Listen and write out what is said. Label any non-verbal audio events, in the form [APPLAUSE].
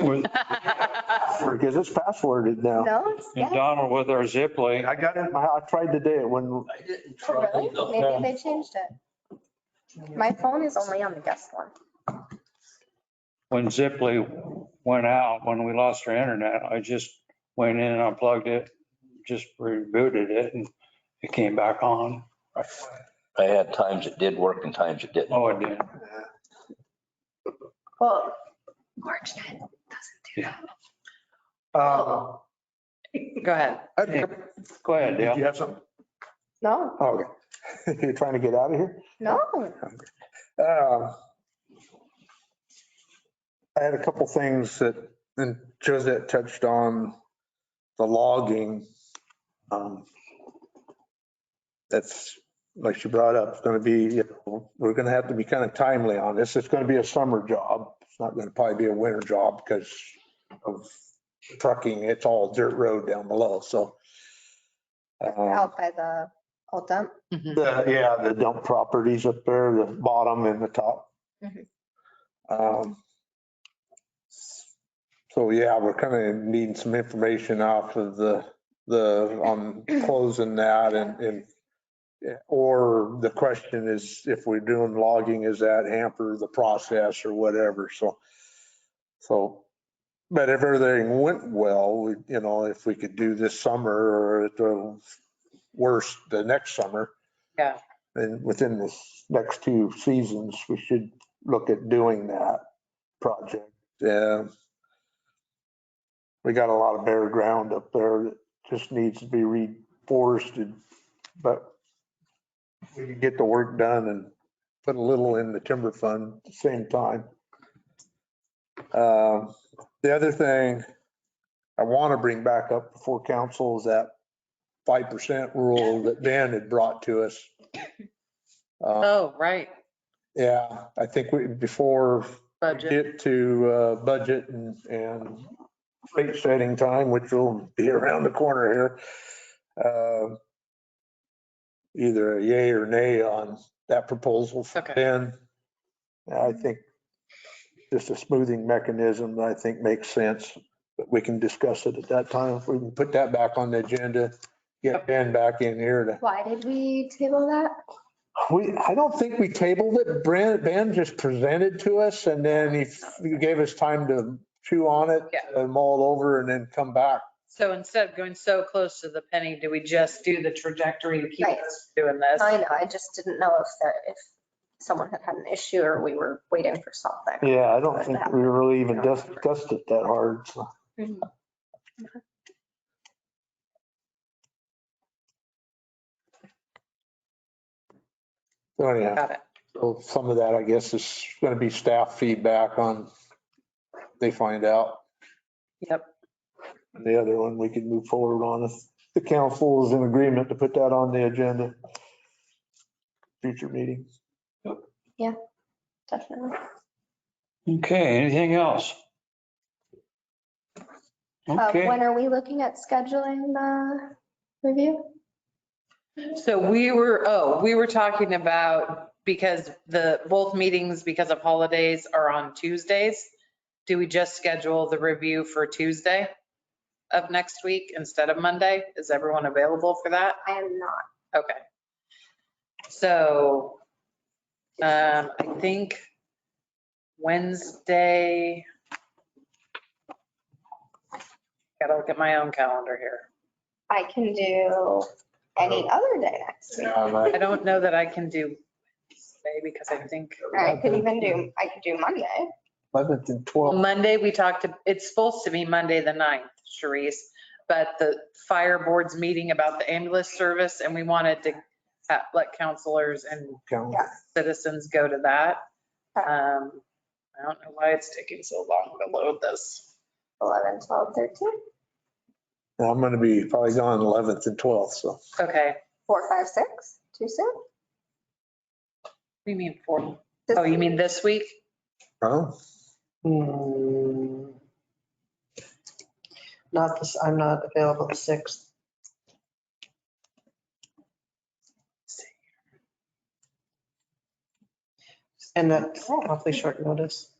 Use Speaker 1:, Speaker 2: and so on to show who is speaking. Speaker 1: with- Because it's passworded now.
Speaker 2: No, it's,
Speaker 3: And
Speaker 2: yeah.
Speaker 3: Donald with our zip link.
Speaker 1: I got it, in my- I tried today it wouldn't.
Speaker 4: I didn't
Speaker 2: Oh,
Speaker 4: try.
Speaker 2: really?
Speaker 4: the-
Speaker 2: Maybe they changed it. My phone is only on the guest one.
Speaker 3: When Ziply went out, when we lost our internet, I just went in and unplugged it, just rebooted it and it came back on.
Speaker 5: I had times it did work and times it didn't.
Speaker 3: Oh, it did.
Speaker 2: Well, Marchnet doesn't do that.
Speaker 1: Uh,
Speaker 6: Go ahead.
Speaker 1: I- Did
Speaker 3: Go ahead, Dale.
Speaker 1: you have something?
Speaker 2: No,
Speaker 1: Oh, Okay. [LAUGHS] You're trying to get out of here?
Speaker 2: no.
Speaker 1: Uh, I had a couple things that, and Josette touched on the logging. um, That's, like she brought up, it's gonna be, you know, we're gonna have to be kind of timely on this. It's gonna be a summer job. It's not gonna probably be a winter job because of trucking. It's all dirt road down below, so. uh,
Speaker 2: Out by the old dump.
Speaker 1: the, yeah, the dump properties up there, the bottom and the top.
Speaker 2: Mhm.
Speaker 1: Um, So yeah, we're kind of needing some information off of the, the, on closing that and, and yeah, or the question is if we're doing logging, is that hamper the process or whatever? So, so, but if everything went well, we, you know, if we could do this summer or at the worst, the next summer, and uh, within the next two seasons, we should look at doing that project. Yeah. We got a lot of bare ground up there that just needs to be reforested, but we can get the work done and put a little in the timber fund at the same time. Um, The other thing I want to bring back up before council is that 5% rule that Dan had brought to us. Uh,
Speaker 6: Oh, right.
Speaker 1: yeah, I think we, before we
Speaker 6: Budget.
Speaker 1: get to uh, budget and, and rate setting time, which will be around the corner here. uh, Either a yay or nay on that proposal from
Speaker 6: Okay.
Speaker 1: Ben. I think just a smoothing mechanism, I think makes sense, but we can discuss it at that time. If we can put that back on the agenda, get Ben back in here to
Speaker 2: Why did we table that?
Speaker 1: we, I don't think we tabled it. Brand, Ben just presented to us and then he f- he gave us time to chew on it
Speaker 6: Yeah.
Speaker 1: and mull it over and then come back.
Speaker 6: So instead of going so close to the penny, do we just do the trajectory to keep
Speaker 2: Right.
Speaker 6: us doing this?
Speaker 2: I know, I just didn't know if that, if someone had had an issue or we were waiting for something.
Speaker 1: Yeah, I don't think we really even discussed it that hard. so.
Speaker 2: Mm-hmm,
Speaker 1: So anyhow,
Speaker 6: Got it.
Speaker 1: so some of that, I guess, is going to be staff feedback on, they find out.
Speaker 6: Yep.
Speaker 1: And the other one we can move forward on if the council is in agreement to put that on the agenda. Future meeting.
Speaker 2: Definitely.
Speaker 3: Okay, anything else?
Speaker 2: Uh,
Speaker 3: Okay,
Speaker 2: When are we looking at scheduling the review?
Speaker 6: So we were, oh, we were talking about, because the, both meetings, because of holidays, are on Tuesdays. Do we just schedule the review for Tuesday of next week instead of Monday? Is everyone available for that?
Speaker 2: I am not.
Speaker 6: Okay. So, um, I think Wednesday. Gotta look at my own calendar here.
Speaker 2: I can do any other day next week.
Speaker 6: I don't know that I can do Wednesday because I think,
Speaker 2: Or I could even do, I could do Monday.
Speaker 1: Eleventh and
Speaker 6: well,
Speaker 1: twelfth.
Speaker 6: Monday, we talked, to- it's supposed to be Monday the 9th, Sharice. But the fire board's meeting about the ambulance service and we wanted to ha- let counselors and citizens go to that. Um, I don't know why it's taking so long to load this.
Speaker 2: 11, 12, 13,
Speaker 1: I'm going to be probably gone eleventh and twelfth, so.
Speaker 6: Okay,
Speaker 2: 4, 5, 6, too soon?
Speaker 6: we mean four.
Speaker 2: This-
Speaker 6: Oh, you mean this week?
Speaker 1: Oh,
Speaker 7: Hmm. Not this, I'm not available the sixth. And that's awfully short notice.